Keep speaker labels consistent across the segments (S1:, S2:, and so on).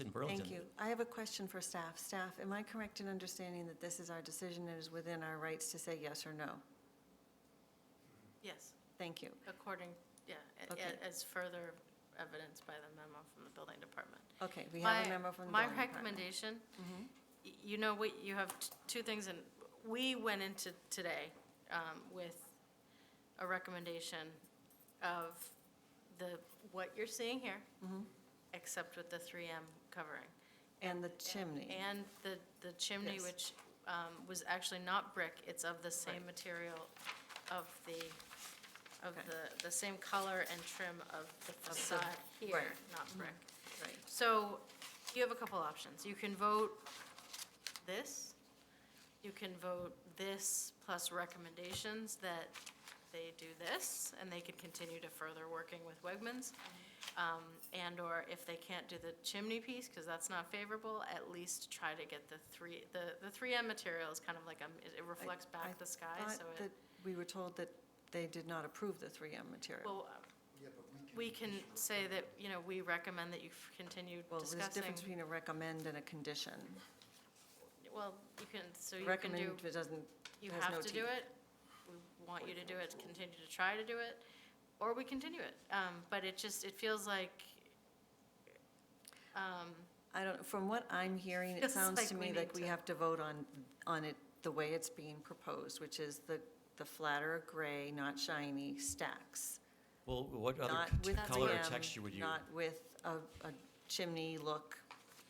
S1: in Burlington.
S2: Thank you. I have a question for staff. Staff, am I correct in understanding that this is our decision and is within our rights to say yes or no?
S3: Yes,
S2: Thank you.
S3: according, yeah, a-
S2: Okay.
S3: a- as further evidence by the memo from the building department.
S2: Okay, we have a
S3: My-
S2: memo from the building
S3: My
S2: department. Mm-hmm.
S3: recommendation, y- you know, we, you have t- two things, and we went into today um, with a recommendation of the, what you're seeing here, except with the 3M covering.
S2: Mm-hmm. And the chimney.
S3: And the, the chimney,
S2: Yes.
S3: which um, was actually not brick, it's of the same material of the, of
S2: Okay.
S3: the, the same color and trim of the facade here,
S2: right.
S3: not brick.
S2: Right.
S3: So you have a couple options. You can vote this, you can vote this plus recommendations that they do this, and they could continue to further working with Wegmans. Um, And/or if they can't do the chimney piece, because that's not favorable, at least try to get the three, the, the 3M material is kind of like, um, it- it
S2: I-
S3: reflects
S2: I
S3: back the sky,
S2: thought
S3: so
S2: that
S3: it,
S2: We were told that they did not approve the 3M material.
S3: well, we can say that, you know, we recommend that you f- continue
S2: Well, there's a
S3: discussing.
S2: difference between a recommend and a condition.
S3: Well, you can, so you can
S2: Recommend
S3: do.
S2: it doesn't,
S3: you
S2: has no
S3: have to do
S2: teeth.
S3: it, we want you to do it, continue to try to do it, or we continue it. Um, But it just, it feels like, um,
S2: I don't, from what I'm hearing, it
S3: Feels
S2: sounds
S3: like
S2: to
S3: we
S2: me
S3: need
S2: like we
S3: to-
S2: have to vote on, on it the way it's being proposed, which is the, the flatter gray, not shiny stacks.
S1: Well, what other
S2: Not
S1: t-
S2: with
S1: color or
S2: jam,
S1: texture would you?
S2: Not with a, a chimney look,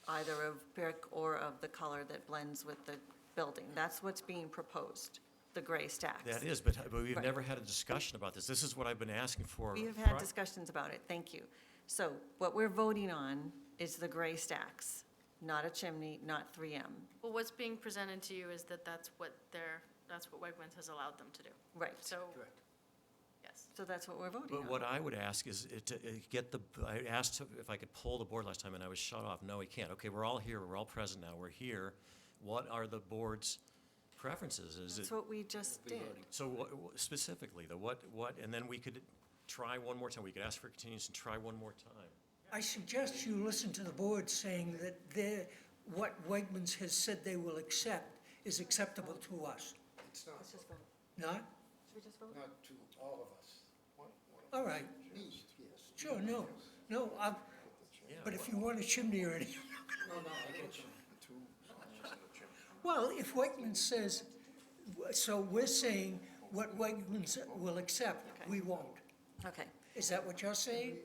S2: either of brick or of the color that blends with the building. That's what's being proposed, the gray stacks.
S1: That is, but but we've
S2: Right.
S1: never had a discussion about this. This is what I've been asking for.
S2: We have had
S1: pri-
S2: discussions about it, thank you. So what we're voting on is the gray stacks, not a chimney, not 3M.
S3: well, what's being presented to you is that that's what they're, that's what Wegmans has allowed them to do.
S2: Right,
S3: So,
S4: Correct.
S3: yes.
S2: so that's what we're voting
S1: But
S2: on.
S1: what I would ask is it to uh, get the, I asked if I could poll the board last time, and I was shut off. No, we can't. Okay, we're all here, we're all present now, we're here. What are the board's preferences? Is it,
S2: That's what we just did.
S1: so what- what- specifically, though, what, what, and then we could try one more time. We could ask for continuance and try one more time.
S4: I suggest you listen to the board saying that they what Wegmans has said they will accept is acceptable to us.
S5: It's not,
S4: Not?
S5: not to all of us. One- one of
S4: All right,
S5: these, yes.
S4: sure, no, no, i but if you want a chimney or anything.
S5: No, no, I get you. Two.
S4: Well, if Wegmans says, so we're saying what Wegmans will accept, we won't.
S2: Okay,
S4: Is that what you're saying?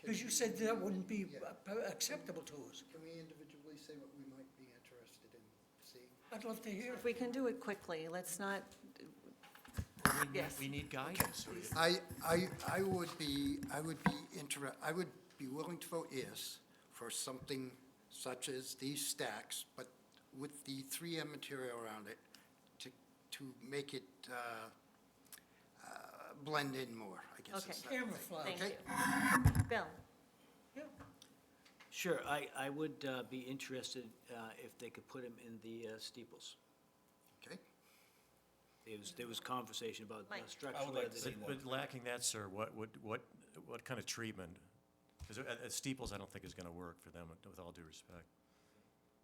S4: Because you said that wouldn't be uh, acceptable to us.
S5: Can we individually say what we might be interested in seeing?
S4: I'd love to hear.
S2: if we can do it quickly, let's not,
S1: We need-
S2: Yes.
S1: We need guidance. We-
S5: I, I, I would be, I would be inter, I would be willing to vote yes for something such as these stacks, but with the 3M material around it to, to make it uh, uh, blend in more, I guess.
S2: Okay.
S5: it's not-
S4: Camouflage.
S2: thank
S5: Okay.
S2: you. Bill,
S4: Yeah.
S6: Sure, I, I would uh, be interested uh, if they could put them in the uh, steeples.
S5: Okay,
S6: There was, there was conversation about the
S2: Mike.
S6: structure of
S1: But-
S6: the.
S1: But lacking that, sir, what, what, what, what kind of treatment? Because steeples, I don't think is going to work for them, with all due respect.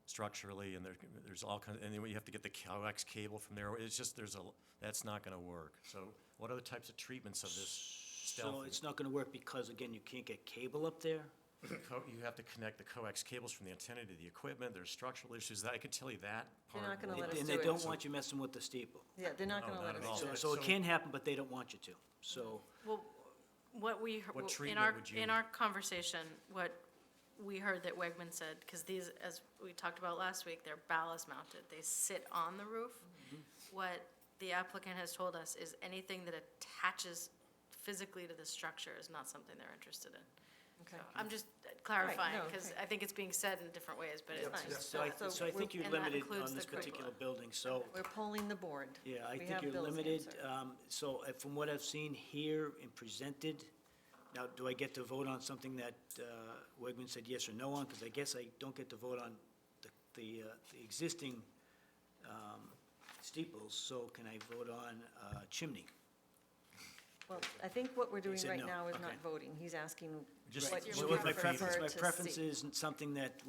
S1: Structurally, and there, there's all kinds, and then you have to get the coax cable from there. It's just, there's a, l- that's not going to work. So what other types of treatments of this
S6: So
S1: stealth?
S6: it's not gonna work because, again, you can't get cable up there.
S1: co- You have to connect the coax cables from the antenna to the equipment. There's structural issues. That I can tell you that
S2: You're
S1: part.
S2: not gonna
S1: won't-
S2: let us
S6: And
S2: do
S6: they
S2: it.
S6: don't want you messing with the steeple.
S2: yeah, they're not
S1: No,
S2: going to
S1: not
S2: let
S1: at
S2: us
S1: all.
S2: do
S6: So,
S1: Yeah,
S6: so it
S1: so-
S6: can happen, but they don't want you to, so.
S3: Well, what we,
S1: What
S3: well, in
S1: treatment
S3: our,
S1: would
S3: in
S1: you-
S3: our conversation, what we heard that Wegman said, because these, as we talked about last week, they're ballast mounted, they sit on the roof.
S1: Mm-hmm.
S3: What the applicant has told us is anything that attaches physically to the structure is not something they're interested in.
S2: Okay.
S3: So
S1: Mm.
S3: I'm just clarifying,
S2: no,
S3: because
S2: okay.
S3: I think it's being said in different ways, but it's
S2: Fine.
S6: So I, so I
S2: we're-
S6: think you're
S3: and that
S6: limited
S3: includes
S6: on
S3: the
S6: this particular
S3: curricula.
S6: building, so.
S2: We're polling the board.
S6: Yeah, I
S2: We
S6: think
S2: have
S6: you're
S2: Bill's
S6: limited.
S2: answer.
S6: um, So uh, from what I've seen here and presented, now, do I get to vote on something that uh, Wegman said yes or no on? Because I guess I don't get to vote on the- the uh, the existing um, steeples, so can I vote on uh, chimney?
S2: Well, I think what we're doing
S6: said
S2: right
S6: no.
S2: now is not
S6: Okay.
S2: voting. He's asking
S1: Just
S2: what
S1: your
S2: you
S6: So if my
S2: would
S1: preference.
S2: prefer
S6: preference, my
S2: to see.
S6: preference is something that